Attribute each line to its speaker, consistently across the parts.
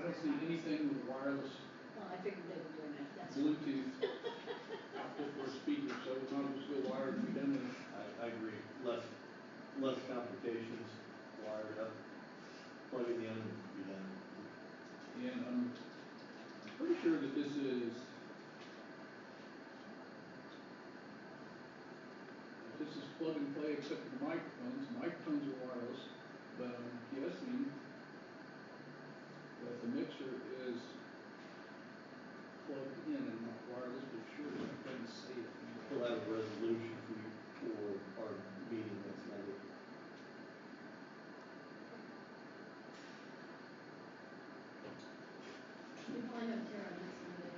Speaker 1: don't see anything with wireless
Speaker 2: Well, I figured they were doing that, that's.
Speaker 1: Bluetooth output for a speaker, so we might as well go wired and be done with it.
Speaker 3: I, I agree, less, less complications, wired up, plugging in, be done.
Speaker 1: And um, I'm pretty sure that this is. This is plug and play except for the microphones, microphones are wireless, but um, I'm guessing that the mixer is plugged in and not wireless, but sure, I couldn't see it.
Speaker 3: We'll have a resolution for you for our meeting next Monday.
Speaker 2: We probably have Tara next Monday.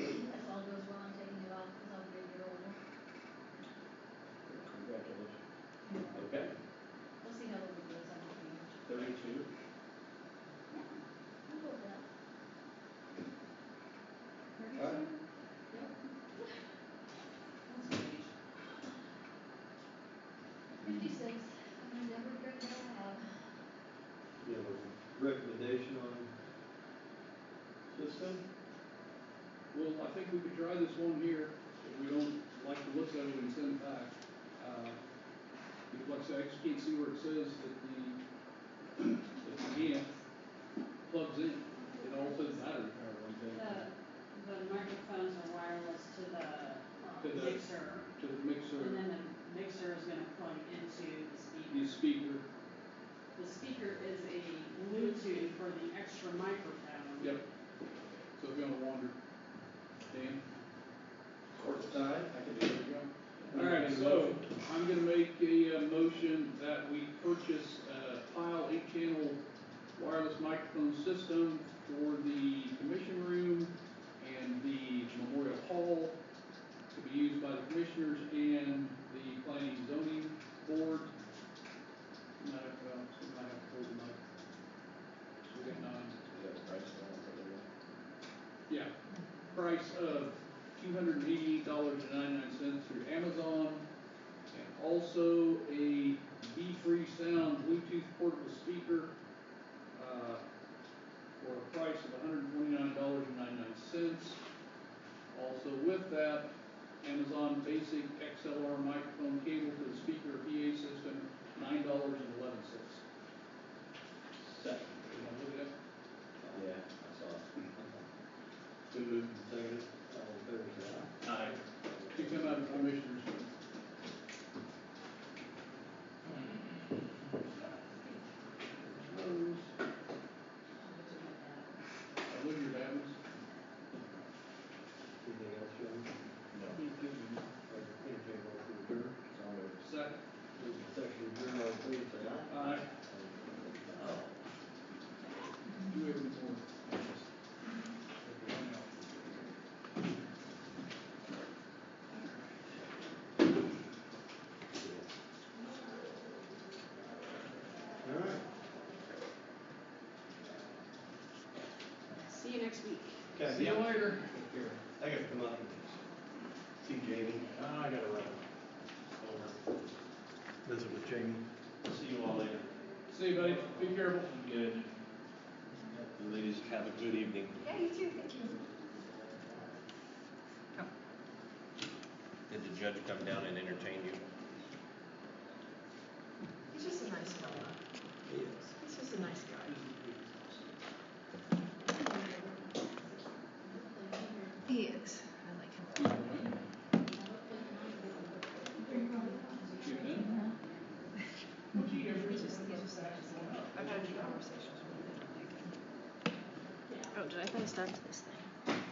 Speaker 2: If all goes well, I'm taking it off because I'm a year older.
Speaker 3: Congratulations. Okay,
Speaker 2: We'll see how old it goes, I don't know.
Speaker 3: thirty-two.
Speaker 2: Yeah, I'll go with that.
Speaker 3: Alright.
Speaker 2: Yep. Fifty-six, I'm gonna never drink that out.
Speaker 3: You have a recommendation on system?
Speaker 1: Well, I think we could try this one here, if we don't like the looks of it and send it back. Uh, Because like I said, I just can't see where it says that the, that the amp plugs in, it all says battery power on
Speaker 4: The,
Speaker 2: uh,
Speaker 1: that,
Speaker 4: the microphones are wireless to
Speaker 1: To
Speaker 4: the
Speaker 2: um,
Speaker 1: the-
Speaker 4: uh, mixer,
Speaker 1: to the
Speaker 4: and
Speaker 1: mixer,
Speaker 4: then the mixer is gonna plug into the
Speaker 1: the
Speaker 4: speaker.
Speaker 1: speaker,
Speaker 4: The speaker is a Bluetooth for the extra microphone.
Speaker 1: yep. So if you wanna wander, Dan?
Speaker 3: Court side, I can do it.
Speaker 1: All right, so I'm gonna make a uh, motion that we purchase uh, a tile eight-channel wireless microphone system for the commission room and the memorial hall to be used by the commissioners and the planning and zoning board. Might have, well, we might have to hold them up. So we got nine. Yeah, price of two hundred and eighty dollars and ninety-nine cents through Amazon. And also a B-free sound Bluetooth portable speaker, uh, for a price of hundred and twenty-nine dollars and ninety-nine cents. Also with that, Amazon Basic XLR microphone cable to the speaker PA system, nine dollars and eleven cents.
Speaker 3: Second.
Speaker 1: Did I look it up?
Speaker 3: Yeah, I saw it. Been moved and seconded, all in favor, say aye. Aye.
Speaker 1: To come out of commissioners. Those. I live your battles.
Speaker 3: Anything else, John?
Speaker 1: No. Give
Speaker 3: Like, entertain all through the door?
Speaker 1: them a sec.
Speaker 3: Moved and seconded, adjourned, all in favor, say aye.
Speaker 1: Aye.
Speaker 3: Aye.
Speaker 1: Do everything for
Speaker 3: All right,
Speaker 4: See you next week.
Speaker 3: okay.
Speaker 1: See you later.
Speaker 3: Here, I gotta come up and see Jamie. Ah, I gotta run over, visit with Jamie. See you all later.
Speaker 1: See you, buddy. Be careful.
Speaker 3: Good. Ladies, have a good evening.
Speaker 2: Yeah, you too, thank you.
Speaker 5: Did the judge come down and entertain you?
Speaker 6: He's just a nice guy.
Speaker 5: Yes.
Speaker 6: He's just a nice guy. He is. I like him.
Speaker 1: Shoot in. Would you ever-
Speaker 6: He's just, he's just a nice guy. I've had a few conversations with him. I like him. Oh, did I gotta start this thing?